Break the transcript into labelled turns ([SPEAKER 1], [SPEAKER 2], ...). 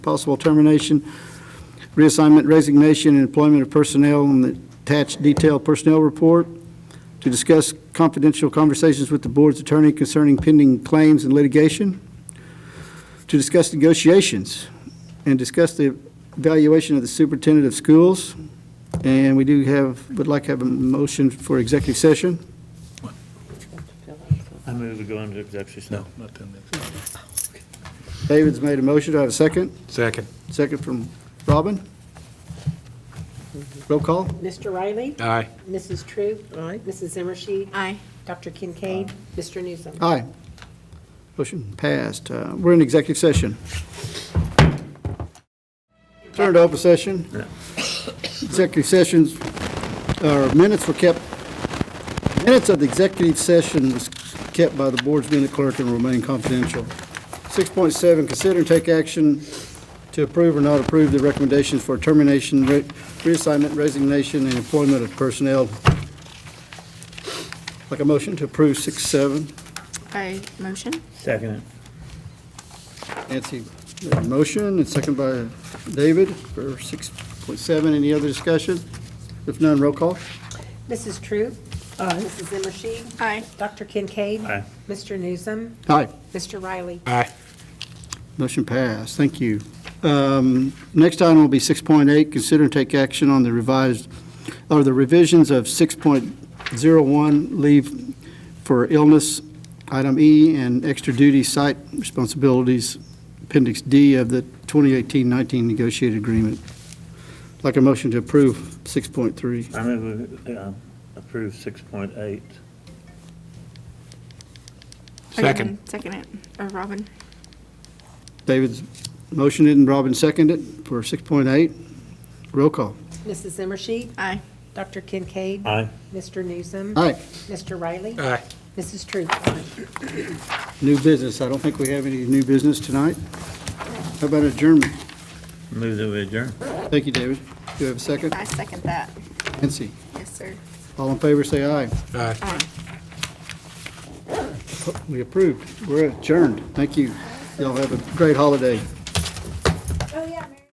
[SPEAKER 1] possible termination, reassignment, resignation, and employment of personnel on the attached detailed personnel report, to discuss confidential conversations with the board's attorney concerning pending claims and litigation, to discuss negotiations, and discuss the evaluation of the superintendent of schools. And we do have, would like to have a motion for executive session.
[SPEAKER 2] I move we go into executive session.
[SPEAKER 3] Not ten minutes.
[SPEAKER 1] David's made a motion. Do I have a second?
[SPEAKER 3] Second.
[SPEAKER 1] Second from Robin. Roll call?
[SPEAKER 4] Mr. Riley?
[SPEAKER 3] Aye.
[SPEAKER 4] Mrs. True? Aye. Mrs. Zimmershed?
[SPEAKER 5] Aye.
[SPEAKER 4] Dr. Kincaid? Mr. Newsom?
[SPEAKER 1] Aye. Motion passed. Uh, We're in executive session. Turn to open session. Executive sessions, or minutes were kept, minutes of the executive session was kept by the board's minute clerk and remain confidential. 6.7, consider and take action to approve or not approve the recommendations for termination, re- reassignment, resignation, and employment of personnel. Like a motion to approve 6.7.
[SPEAKER 5] I motion.
[SPEAKER 2] Second it.
[SPEAKER 1] Nancy, made a motion, and second by David for 6.7. Any other discussion? If none, roll call.
[SPEAKER 4] Mrs. True? Aye. Mrs. Zimmershed?
[SPEAKER 5] Aye.
[SPEAKER 4] Dr. Kincaid?
[SPEAKER 2] Aye.
[SPEAKER 4] Mr. Newsom?
[SPEAKER 1] Aye.
[SPEAKER 4] Mr. Riley?
[SPEAKER 3] Aye.
[SPEAKER 1] Motion passed. Thank you. Um, Next item will be 6.8, consider and take action on the revised, or the revisions of 6.01, leave for illness, item E, and extra duty site responsibilities, appendix D of the 2018-19 negotiated agreement. Like a motion to approve 6.3.
[SPEAKER 2] I move we um, approve 6.8.
[SPEAKER 5] I didn't
[SPEAKER 3] Second.
[SPEAKER 5] Second it, or Robin.
[SPEAKER 1] David's motioned it and Robin seconded it for 6.8. Roll call.
[SPEAKER 4] Mrs. Zimmershed?
[SPEAKER 5] Aye.
[SPEAKER 4] Dr. Kincaid?
[SPEAKER 2] Aye.
[SPEAKER 4] Mr. Newsom?
[SPEAKER 1] Aye.
[SPEAKER 4] Mr. Riley?
[SPEAKER 3] Aye.
[SPEAKER 4] Mrs. True?
[SPEAKER 1] New business. I don't think we have any new business tonight. How about adjournment?
[SPEAKER 2] Move that we adjourn.
[SPEAKER 1] Thank you, David. Do you have a second?
[SPEAKER 5] I second that.
[SPEAKER 1] Nancy,
[SPEAKER 5] Yes, sir.
[SPEAKER 1] all in favor, say aye.
[SPEAKER 3] Aye.
[SPEAKER 1] We approved. We're adjourned. Thank you. Y'all have a great holiday.